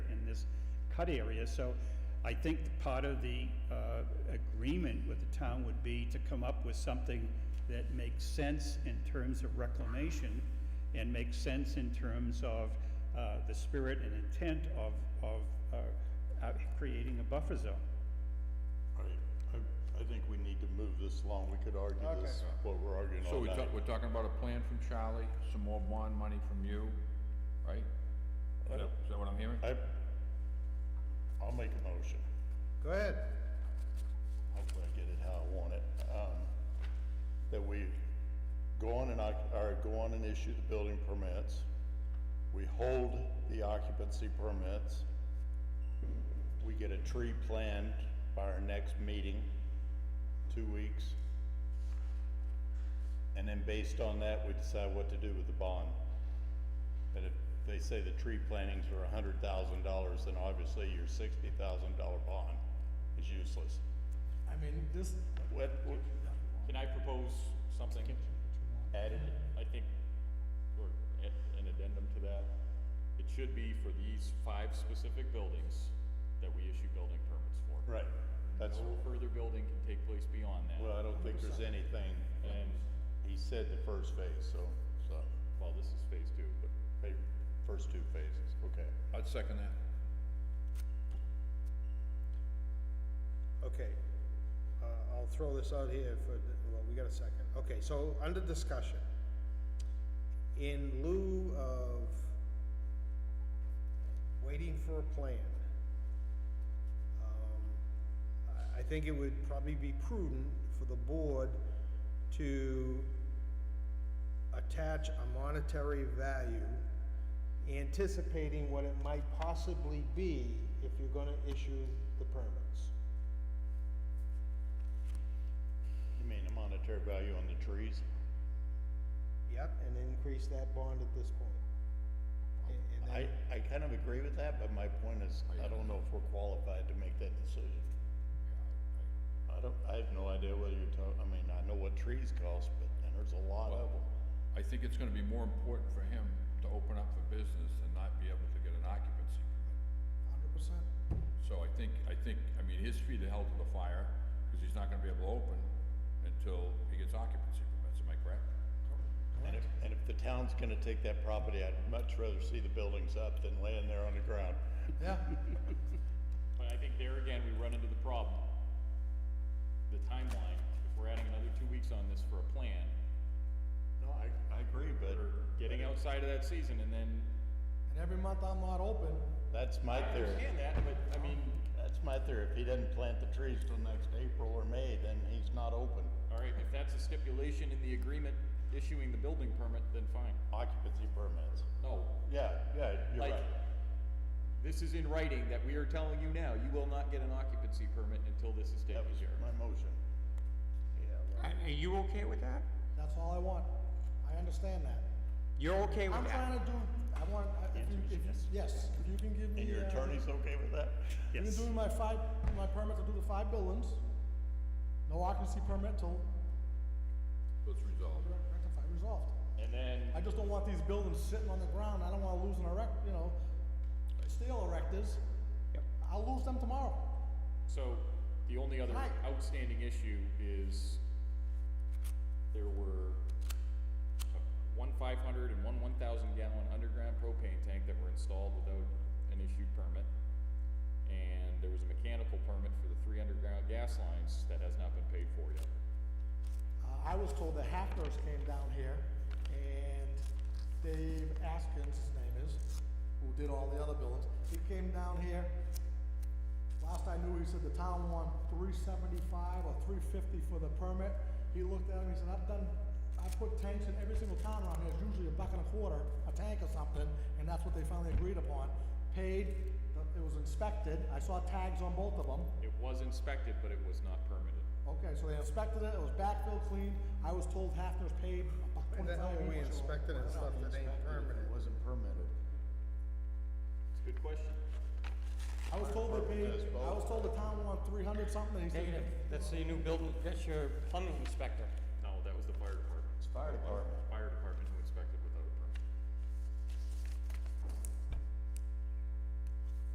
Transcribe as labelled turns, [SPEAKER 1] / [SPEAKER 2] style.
[SPEAKER 1] cut area, so I think part of the uh, agreement with the town would be to come up with something that makes sense in terms of reclamation and makes sense in terms of uh, the spirit and intent of, of uh, uh, creating a buffer zone.
[SPEAKER 2] All right, I, I think we need to move this along. We could argue this, what we're arguing
[SPEAKER 3] So
[SPEAKER 2] all
[SPEAKER 3] we
[SPEAKER 2] night.
[SPEAKER 3] talk, we're talking about a plan from Charlie, some more bond money from you, right? Is that- is that what I'm hearing?
[SPEAKER 2] I, I'll make a motion.
[SPEAKER 4] Go ahead.
[SPEAKER 2] Hopefully I get it how I want it. Um, that we go on and, oc- or go on and issue the building permits. We hold the occupancy permits. We get a tree planned by our next meeting, two weeks. And then based on that, we decide what to do with the bond. And if they say the tree plantings are a hundred thousand dollars, then obviously your sixty thousand dollar bond is useless.
[SPEAKER 5] I mean, this,
[SPEAKER 2] What, what,
[SPEAKER 6] Can I propose something?
[SPEAKER 2] added,
[SPEAKER 6] I think, or a- an addendum to that. It should be for these five specific buildings that we issue building permits for.
[SPEAKER 2] right, that's,
[SPEAKER 6] No further building can take place beyond that.
[SPEAKER 2] well, I don't think there's anything,
[SPEAKER 6] And,
[SPEAKER 2] he said the first phase, so, so,
[SPEAKER 6] well, this is phase two, but
[SPEAKER 2] maybe first two phases, okay.
[SPEAKER 3] I'd second that.
[SPEAKER 4] Okay. Uh, I'll throw this out here for, the- well, we got a second. Okay, so under discussion, in lieu of waiting for a plan, um, I- I think it would probably be prudent for the board to attach a monetary value anticipating what it might possibly be if you're gonna issue the permits.
[SPEAKER 2] You mean the monetary value on the trees?
[SPEAKER 4] Yep, and increase that bond at this point. And- and then-
[SPEAKER 2] I, I kind of agree with that, but my point is, I don't know if we're qualified to make that decision. I don't, I have no idea whether you're talking, I mean, I know what trees cost, but, and there's a lot of them.
[SPEAKER 3] I think it's gonna be more important for him to open up for business and not be able to get an occupancy permit.
[SPEAKER 5] hundred percent,
[SPEAKER 3] So I think, I think, I mean, his feet are held to the fire, because he's not gonna be able to open until he gets occupancy permits, am I correct?
[SPEAKER 2] And if, and if the town's gonna take that property, I'd much rather see the buildings up than laying there on the ground.
[SPEAKER 3] Yeah.
[SPEAKER 6] But I think there again, we run into the problem. The timeline, if we're adding another two weeks on this for a plan,
[SPEAKER 2] No, I, I agree, but.
[SPEAKER 6] getting outside of that season and then,
[SPEAKER 5] and every month I'm not open,
[SPEAKER 2] That's my
[SPEAKER 6] I
[SPEAKER 2] theory.
[SPEAKER 6] understand that, but I mean,
[SPEAKER 2] That's my theory. If he doesn't plant the trees till next April or May, then he's not open.
[SPEAKER 6] all right, if that's a stipulation in the agreement issuing the building permit, then fine.
[SPEAKER 2] Occupancy permits.
[SPEAKER 6] No,
[SPEAKER 2] Yeah, yeah, you're
[SPEAKER 6] like,
[SPEAKER 2] right.
[SPEAKER 6] this is in writing that we are telling you now, you will not get an occupancy permit until this is taken
[SPEAKER 2] That was
[SPEAKER 6] care of.
[SPEAKER 2] my motion.
[SPEAKER 7] Are are you okay with that?
[SPEAKER 5] that's all I want, I understand that.
[SPEAKER 7] You're okay with
[SPEAKER 5] I'm
[SPEAKER 7] that?
[SPEAKER 5] trying to do, I want, I- if you, if, yes, if you can give me.
[SPEAKER 2] And your
[SPEAKER 5] uh,
[SPEAKER 2] attorney's okay with that?
[SPEAKER 5] You can
[SPEAKER 1] Yes.
[SPEAKER 5] do my five, my permit to do the five buildings, no occupancy permit till
[SPEAKER 3] So it's resolved.
[SPEAKER 5] rectified, resolved.
[SPEAKER 2] And then,
[SPEAKER 5] I just don't want these buildings sitting on the ground, I don't wanna lose an erect, you know, steel erectors.
[SPEAKER 7] Yep.
[SPEAKER 5] I'll lose them tomorrow.
[SPEAKER 6] So, the only other
[SPEAKER 5] Right.
[SPEAKER 6] outstanding issue is there were uh, one five hundred and one one thousand gallon underground propane tank that were installed without an issued permit. And there was a mechanical permit for the three underground gas lines that has not been paid for yet.
[SPEAKER 5] Uh, I was told the Hackers came down here, and Dave Askins, his name is, who did all the other buildings, he came down here. Last I knew, he said the town won three seventy-five or three fifty for the permit. He looked at him, he said, I've done, I put tanks in every single town around here, it's usually a buck and a quarter, a tank or something, and that's what they finally agreed upon. Paid, it was inspected, I saw tags on both of them.
[SPEAKER 6] It was inspected, but it was not permitted.
[SPEAKER 5] Okay, so they inspected it, it was backfill cleaned, I was told Hafner's paid about
[SPEAKER 4] And then
[SPEAKER 5] twenty-five.
[SPEAKER 4] we
[SPEAKER 5] bucks.
[SPEAKER 4] inspected and stuff that ain't
[SPEAKER 2] it
[SPEAKER 4] permanent.
[SPEAKER 2] wasn't permitted.
[SPEAKER 6] It's a good question.
[SPEAKER 5] I was told they paid, I was told the town wanted three hundred something, and he
[SPEAKER 7] Negative.
[SPEAKER 5] said,
[SPEAKER 7] That's the new building, that's your plumbing inspector.
[SPEAKER 6] No, that was the fire department.
[SPEAKER 2] It's fire department.
[SPEAKER 6] Fire department.